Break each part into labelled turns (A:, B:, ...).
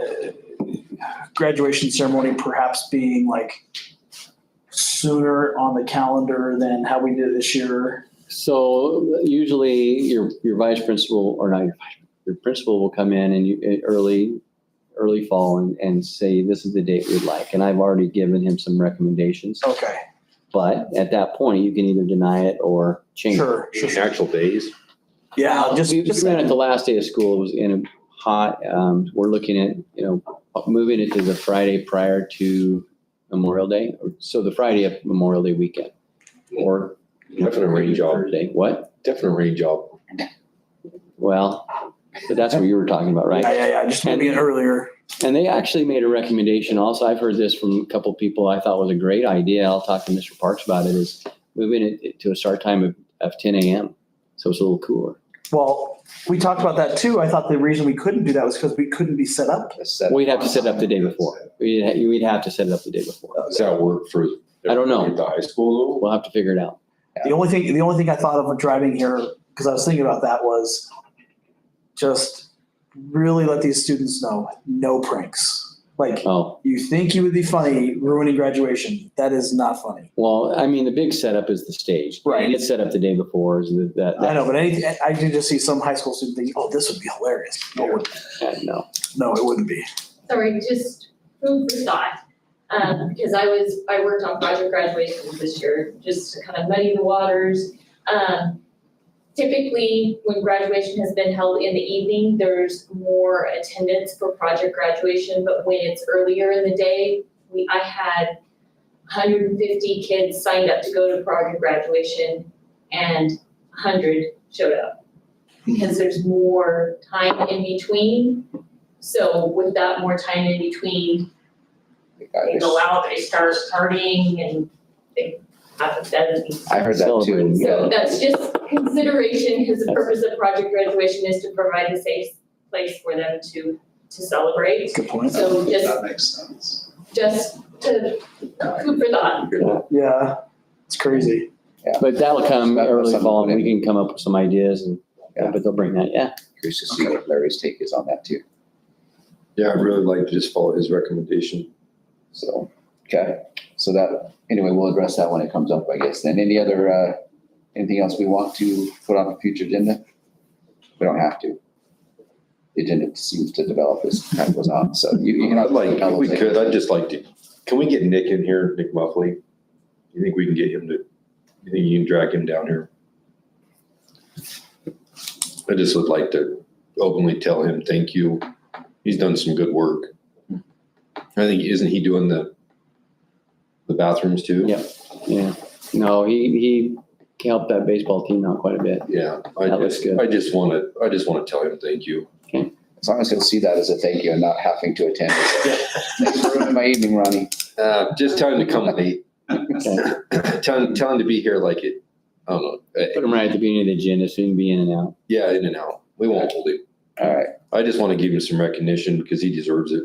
A: uh, graduation ceremony perhaps being like sooner on the calendar than how we did it this year.
B: So usually your, your vice principal, or not your vice, your principal will come in and you, in early, early fall and, and say, this is the date we'd like. And I've already given him some recommendations,
A: Okay,
B: but at that point, you can either deny it or change. it.
A: sure, sure, sure.
C: Actual days.
A: Yeah, just,
B: We
A: just-
B: just ran it the last day of school, it was in a hot, um, we're looking at, you know, moving it to the Friday prior to Memorial Day. or- So the Friday of Memorial Day weekend or.
C: Definitely range all,
B: Thursday, what?
C: definitely range all.
B: Well, but that's what you were talking about,
A: yeah,
B: right?
A: yeah, yeah, just maybe an earlier.
B: And they actually made a recommendation also. I've heard this from a couple people I thought was a great idea. I'll talk to Mr. Parks about it is moving it to a start time of, of ten AM. So it's a little cooler.
A: Well, we talked about that too. I thought the reason we couldn't do that was because we couldn't be set up.
B: We'd have to set it up the day before. We'd, ha- we'd have to set it up the day before.
C: Does that work for?
B: I don't know.
C: The high school though?
B: We'll have to figure it out.
A: The only thing, the only thing I thought of when driving here, because I was thinking about that, was just really let these students know, no pranks. Like,
B: Oh,
A: you think you would be funny ruining graduation. That is not funny.
B: well, I mean, the big setup is the stage.
A: Right.
B: And it's set up the day before is that, that.
A: I know, but any, I did just see some high school student thinking, oh, this would be hilarious. No, it wouldn't.
B: but. No.
A: No, it wouldn't be.
D: sorry, just food for thought. Um, because I was, I worked on project graduations this year, just to kind of muddy the waters. Um, typically, when graduation has been held in the evening, there's more attendance for project graduation, but when it's earlier in the day, we, I had hundred and fifty kids signed up to go to project graduation and hundred showed up. Because there's more time in between, so with that more time in between, they go out, they start partying and they have a dead.
E: I heard that
B: Celebrating.
E: too.
D: So that's just consideration, because the purpose of project graduation is to provide a safe place for them to, to celebrate.
A: Good point.
D: So just,
E: makes sense.
D: just to, food for thought.
A: Yeah, it's crazy.
B: But that'll come
E: That's
B: early
E: something
B: fall and
E: to
B: we
E: put
B: can come up with some ideas and,
E: Yeah.
B: but they'll bring that. Yeah.
E: Curious to see what Larry's take is on that too.
C: Yeah, I'd really like to just follow his recommendation.
E: So, okay, so that, anyway, we'll address that when it comes up, I guess. Then any other, uh, anything else we want to put on the future agenda? We don't have to. The agenda seems to develop as time goes on, so you, you can.
C: I'd like, if we
E: I'll-
C: could, I'd just like to, can we get Nick in here, Nick Muffley? You think we can get him to, you think you can drag him down here? I just would like to openly tell him, thank you. He's done some good work. I think, isn't he doing the, the bathrooms too?
B: Yeah. Yeah. No, he, he helped that baseball team out quite a bit.
C: Yeah, I
B: That looks
C: just,
B: good.
C: I just want to, I just want to tell him, thank you.
E: As long as he'll see that as a thank you and not having to attend. Thanks for ruining My evening, Ronnie.
C: Uh, just tell him to come late.
B: Okay.
C: Tell him, tell him to be here like it, I don't know, uh,
B: Put him right at the beginning of the agenda, so he can be in and out.
C: yeah, in and out. We won't hold him.
E: All right,
C: I just want to give him some recognition because he deserves it.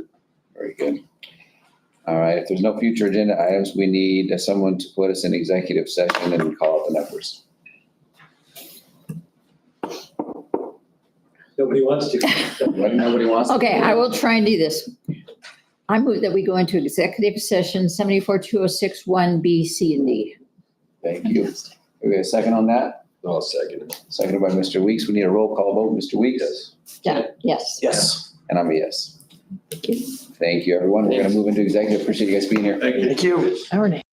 E: very good. All right, if there's no future agenda items, we need someone to put us in executive session and call out the numbers.
F: Nobody wants to.
E: Nobody wants. to-
G: Okay, I will try and do this. I move that we go into executive session seventy-four two oh six one B, C, and D.
E: Thank you. We got a second on that?
C: I'll second it.
E: Seconded by Mr. Weeks. We need a roll call vote. Mr. Weeks?
C: Yes.
G: Yeah, yes.
A: Yes.
E: And I'm a yes. Thank you, everyone. We're gonna move into executive. Appreciate you guys being here.
A: Thank you.
G: All right.